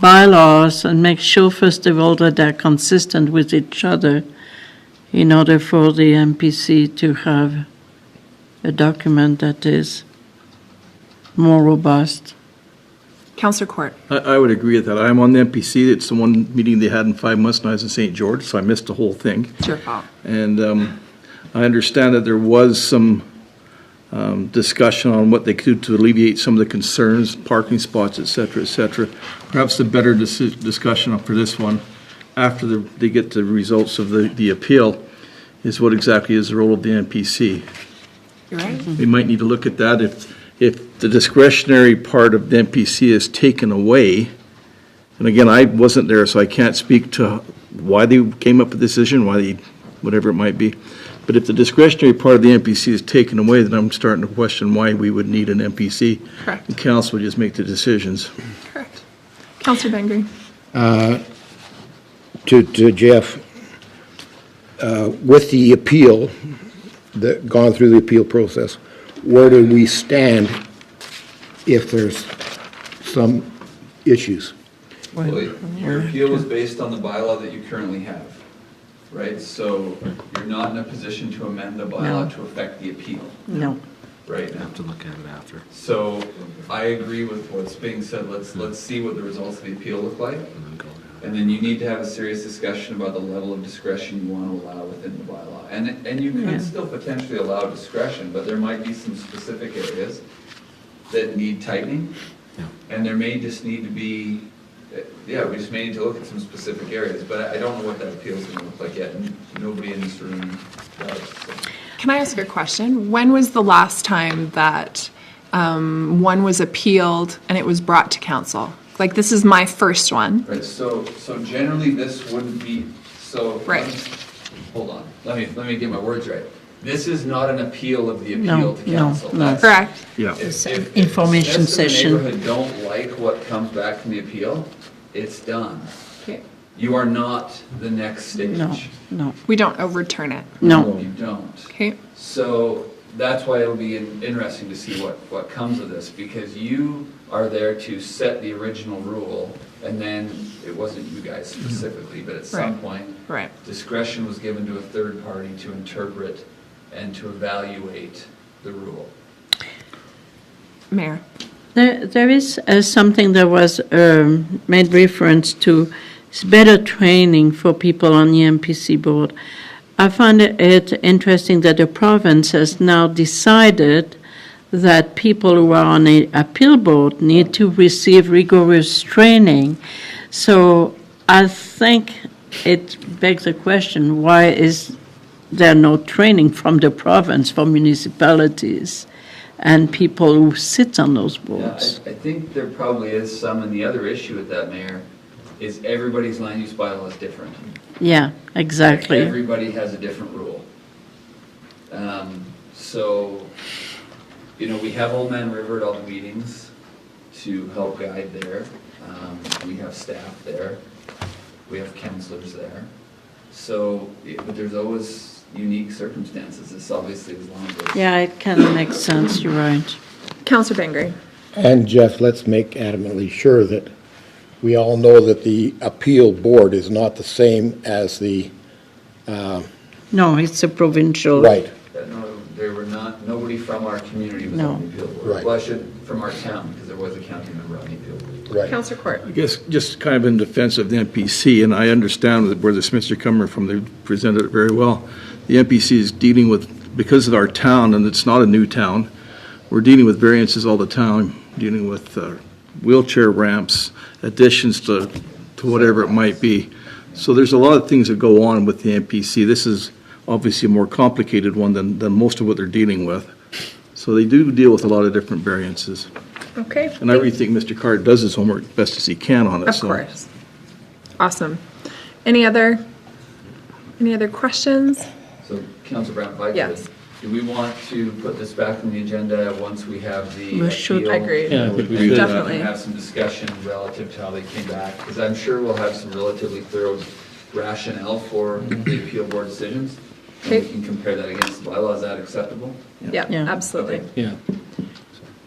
bylaws and make sure, first of all, that they're consistent with each other in order for the MPC to have a document that is more robust. Counselor Court. I, I would agree with that. I'm on the MPC. It's the one meeting they had in five months, and I was in St. George, so I missed the whole thing. It's your fault. And um, I understand that there was some um, discussion on what they could do to alleviate some of the concerns, parking spots, et cetera, et cetera. Perhaps the better dis- discussion for this one, after the- they get the results of the, the appeal, is what exactly is the role of the MPC. You're right. We might need to look at that. If, if the discretionary part of the MPC is taken away, and again, I wasn't there, so I can't speak to why they came up with the decision, why they, whatever it might be. But if the discretionary part of the MPC is taken away, then I'm starting to question why we would need an MPC. Correct. The council would just make the decisions. Correct. Counselor Bengry. to, to Jeff, uh, with the appeal, that, gone through the appeal process, where do we stand if there's some issues? Well, Your appeal is based on the bylaw that you currently have, right? So you're not in a position to amend the bylaw to affect the appeal No. right now. Have to look at it after. So I agree with what's being said. Let's, let's see what the results of the appeal look like. Hmm. And then you need to have a serious discussion about the level of discretion you want to allow within the bylaw. And, and you Yeah. could still potentially allow discretion, but there might be some specific areas that need tightening. And there may just need to be, eh, yeah, we just may need to look at some specific areas, but I I don't know what that appeal's gonna look like yet, and nobody in this room does. so. Can I ask a question? When was the last time that um, one was appealed and it was brought to council? Like, this is my first one. Right, so, so generally this wouldn't be, so. Right. Hold on, let me, let me get my words right. This is not an appeal of the No, appeal to no, council. no. That's- Correct? Yeah. if- It's if- an if information residents of the session. neighborhood don't like what comes back from the appeal, it's done. Okay. You are not the next stage. No, no, We don't overturn it. no. You don't. Okay? So that's why it'll be in- interesting to see what, what comes of this, because you are there to set the original rule, and then it wasn't you guys specifically, but at some Right. point, Right. discretion was given to a third party to interpret and to evaluate the rule. Mayor. There, there is uh, something that was um, made reference to, it's better training for people on the MPC board. I find it interesting that the province has now decided that people who are on a appeal board need to receive rigorous training. So I think it begs the question, why is there no training from the province for municipalities and people who sit on those Yeah, boards? I, I think there probably is some, and the other issue with that, Mayor, is everybody's land use bylaw is different. Yeah, exactly. Everybody has a different rule. Um, So, you know, we have Old Man River at all the meetings to help guide there. Um, We have staff there. We have counselors there. So, it- but there's always unique circumstances. It's obviously as long as. Yeah, it kind of makes sense, you're right. Counselor Bengry. And Jeff, let's make adamantly sure that we all know that the appeal board is not the same as the, No, it's a provincial. right, that No, there were not, nobody from our community was No. on the appeal board. Right. Well, I should, from our town, because there was a county member on the appeal board. right. Counselor Court. I guess, just kind of in defense of the MPC, and I understand that where the Smiths are coming from, they presented it very well. The MPC is dealing with, because of our town, and it's not a new town, we're dealing with variances all the time, dealing with uh, wheelchair ramps, additions to, to whatever it might be. So there's a lot of things that go on with the MPC. This is obviously a more complicated one than, than most of what they're dealing with. So they do deal with a lot of different variances. Okay. And I really think Mr. Carr does his homework best as he can on it, Of so. course. Awesome. Any other, any other questions? So, Council Brown, if I could. Yes. Do we want to put this back on the agenda once we have the We should. appeal? Agreed. Yeah, I think we And should. Definitely. Have some discussion relative to how they came back, because I'm sure we'll have some relatively thorough rationale for Mm-hmm. the appeal board decisions. And Okay. we can compare that against the bylaw. Is that acceptable? Yeah, Yeah. absolutely. Yeah.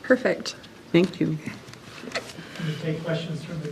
Perfect. Thank you. We take questions from the